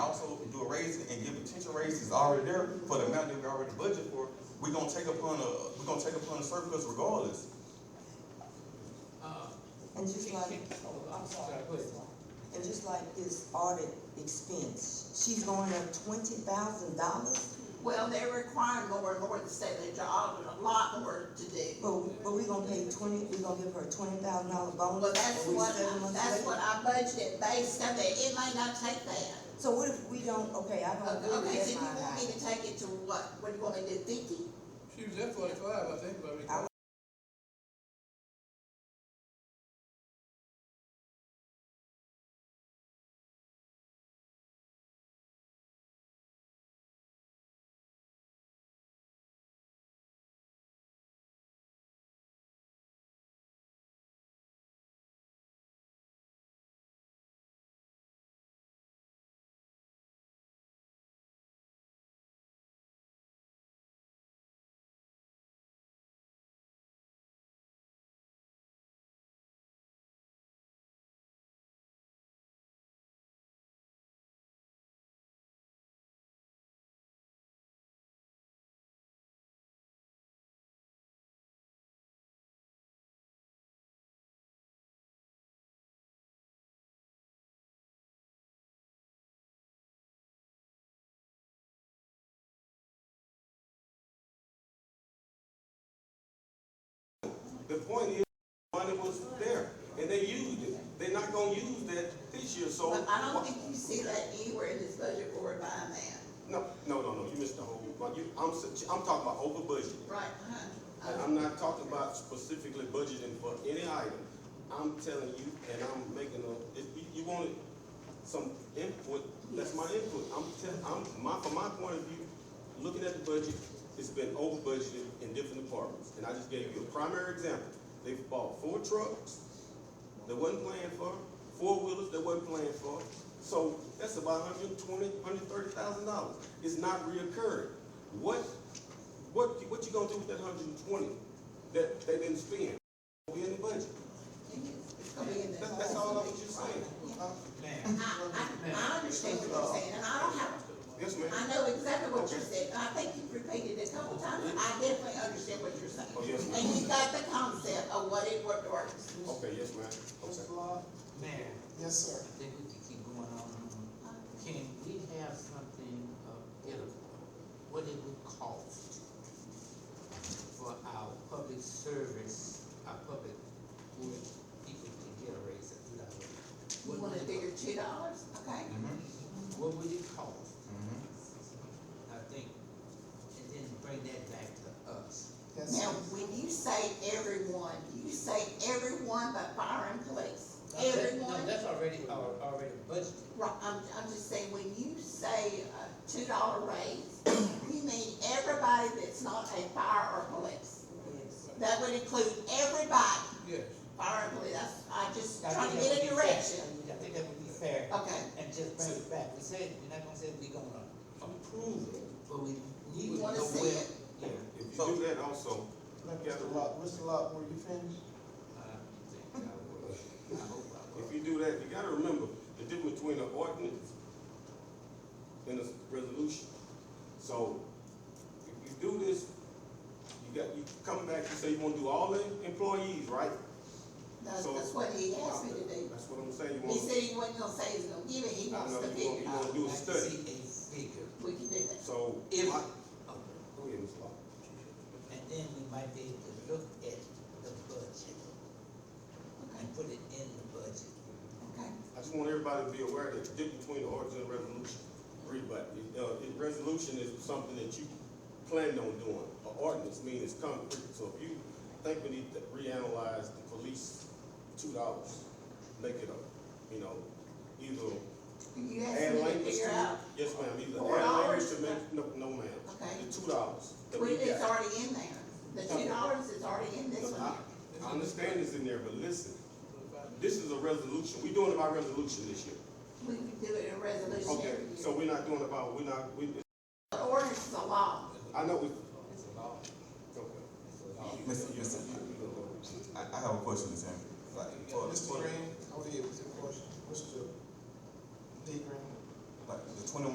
increase is already there for the amount that we already budgeted for, we're gonna take upon a, we're gonna take upon a surplus regardless. Uh, And just like, oh, I'm sorry. Sorry, go ahead. And just like this audit expense, she's going up twenty thousand dollars, Well, they're requiring more and more to say that you're auditing a lot more to do. but, but we gonna pay twenty, we gonna give her a twenty thousand dollar bonus. Well, that's when we what, seven months that's later? what I budgeted based on that, it may not take that. So what if we don't, okay, I don't Okay, agree Oh, okay, with so that you line want me item. to take it to what, what do you want me to do, fifty? She was at forty-five, I think, but we. I- The point is, money was there, and they used it, they're not gonna use that this year, so. But I don't think you see that anywhere in this budget or buying that. No, no, no, no, you missed the whole, like, you, I'm, s- I'm talking about over budget. Right, And huh? I'm not talking about specifically budgeting for any item. I'm telling you, and I'm making a, if you, you wanted some input, that's my input. I'm tell, I'm, my, from my point of view, looking at the budget, it's been over budgeted in different departments. And I just gave you a primary example. They've bought four trucks that wasn't planned for, four wheelers that wasn't planned for. So that's about hundred and twenty, hundred and thirty thousand dollars. It's not reoccurring. What what, you- what you gonna do with that hundred and twenty that they didn't spend? Be in the budget. It's gonna be in there. That's, that's all I was just saying. I, I, I understand what you're saying, and I don't have, Yes, ma'am. I know exactly what you're saying, and I think you've repeated it a couple times, I definitely understand what you're saying. Oh, yes, ma'am. And you got the concept of what it worked or, Okay, yes, ma'am. Okay. Mr. Law, Mayor, yes, sir. I think we can keep going on. Can we have something of edible? What it would cost for our public service, our public work people to get a raise of two dollars? you wanna figure two dollars, okay? Mm-hmm. What would it cost? I think, and then bring that back to us. Yes, Now, sir. when you say everyone, you say everyone but fire and police, Now, that- everyone. No, that's already, al- already budgeted. Right, I'm, I'm just saying, when you say a two dollar raise, you mean everybody that's not a fire or police. That would include everybody, Yes, fire and police, that's, I just I trying to think that get a would be fair. direction. I think that would be fair, Okay, and just bring it back, we said, we're not gonna say we gonna approve it, but we need you to wanna know see where. it, Yeah. If you do that also, Mr. Law, Mr. Law, were you finished? I think I would. I hope I would. if you do that, you gotta remember the difference between an ordinance and a resolution. So, if you do this, you got, you come back, you say you wanna do all the employees, right? that's, So- that's what he asked me to do. That's what I'm saying, you He wanna, said he wasn't gonna say he's gonna give it, he I wants know to you figure want- it you out, want- do a I'd like to study. See a figure, we can do that. so, if, I- okay. go ahead, Ms. Law. and then we might be able to look at the budget and put it in the budget. Okay, I just want everybody to be aware that the difference between the ordinance and resolution, read back, uh, it- resolution is something that you planned on doing. An ordinance means it's concrete, so if you think we need to reanalyze the police two dollars, make it a, you know, either okay. You asked add me to language to figure it. out, Yes, ma'am, either Four add language dollars? to make, no, no, ma'am. Okay. The two dollars that well, we it's got. already in there, the two dollars is already in this No, one I- here. I understand it's in there, but listen, forty-five. this is a resolution, we doing it by resolution this year. We can do it in resolution every Okay, year. so we're not doing about, we're not, we, The ordinance is a law. I know we, It's a law, okay. it's a law. Mr. Mr. I, I have a question, Mr. Henry. Like, for- Mr. Green, go ahead with your question. Mr. D. Green. Like, the twenty